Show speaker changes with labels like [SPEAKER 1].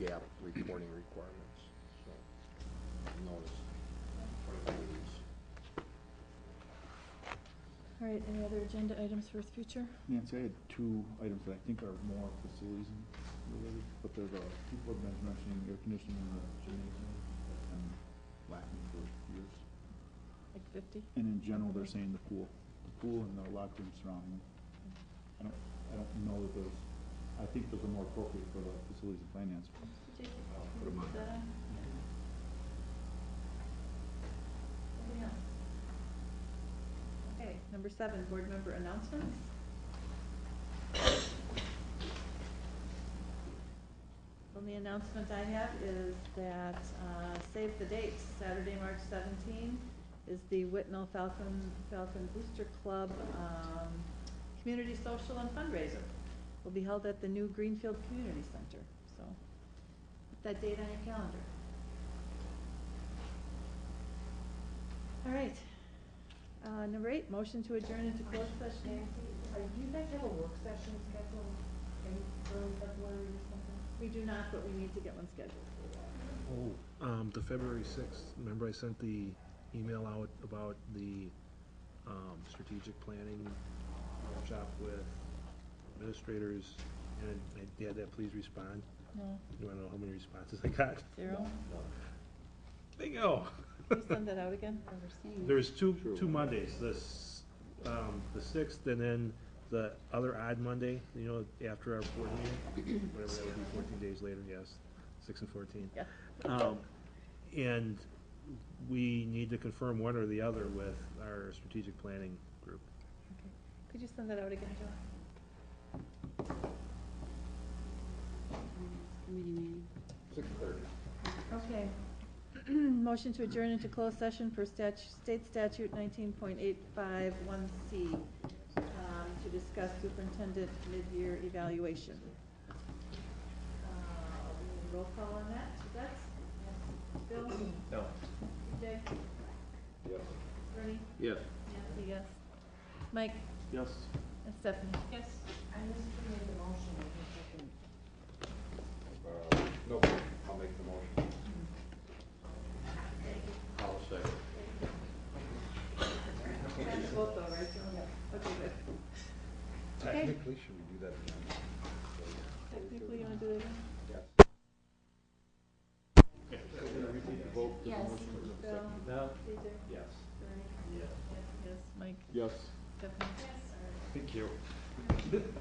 [SPEAKER 1] GAAP reporting requirements, so notice.
[SPEAKER 2] All right, any other agenda items for future?
[SPEAKER 3] Nancy, I had two items that I think are more facilities and related, but there's a, people have been mentioning air conditioning in the gymnasium that's been lacking for years.
[SPEAKER 2] Like fifty?
[SPEAKER 3] And in general, they're saying the pool, the pool and the locker room surrounding. it. I don't, I don't know that those, I think those are more appropriate for the facilities and finance.
[SPEAKER 4] Did you
[SPEAKER 1] I'll put 'em on.
[SPEAKER 4] put that on? Anything else? Okay, number seven, board member announcements. Only announcement I have is that, uh, save the dates, Saturday, March seventeen is the Whitnall Falcon, Falcon Booster Club, um, community social and fundraiser. Will be held at the new Greenfield Community Center, so put that date on your calendar. All right, uh, number eight, motion to adjourn into closed session.
[SPEAKER 5] Nancy, uh, do you guys have a work session scheduled in early February or something?
[SPEAKER 4] We do not, but we need to get one scheduled.
[SPEAKER 6] Oh, um, the February sixth, remember I sent the email out about the, um, strategic planning workshop with administrators, and I had that please respond,
[SPEAKER 2] No,
[SPEAKER 6] you wanna know how many responses I got?
[SPEAKER 2] zero?
[SPEAKER 6] Bingo!
[SPEAKER 4] Can you send that out again?
[SPEAKER 6] There's two,
[SPEAKER 1] True.
[SPEAKER 6] two Mondays, this, um, the sixth and then the other odd Monday, you know, after our board meeting, whatever that would be, fourteen days later, yes, six and fourteen.
[SPEAKER 4] Yeah.
[SPEAKER 6] Um, and we need to confirm one or the other with our strategic planning group.
[SPEAKER 4] Okay. Could you send that out again, Joe?
[SPEAKER 1] Six thirty.
[SPEAKER 4] Okay. Motion to adjourn into closed session per statute, state statute nineteen point eight five one C, um, to discuss superintendent mid-year evaluation. Uh, Roll call on that, That's Bill?
[SPEAKER 1] No.
[SPEAKER 4] Jay?
[SPEAKER 1] Yes.
[SPEAKER 4] Bernie?
[SPEAKER 1] Yes.
[SPEAKER 4] Nancy, yes. Mike
[SPEAKER 3] Yes.
[SPEAKER 4] and Stephanie? Yes.
[SPEAKER 5] I missed you made the motion, I think I can.
[SPEAKER 1] Uh, no, I'll make the motion. I'll second.
[SPEAKER 4] And both though, right, Joe? Okay, good.
[SPEAKER 1] Technically, should we do that again?
[SPEAKER 4] Technically, you wanna do that again?
[SPEAKER 1] Yes. Can we repeat the vote?
[SPEAKER 5] Yes.
[SPEAKER 4] Bill?
[SPEAKER 1] No.
[SPEAKER 4] Peter?
[SPEAKER 1] Yes.
[SPEAKER 4] Bernie? Yes. Yes, Mike?
[SPEAKER 3] Yes.
[SPEAKER 4] Stephanie? Yes.
[SPEAKER 1] Thank you.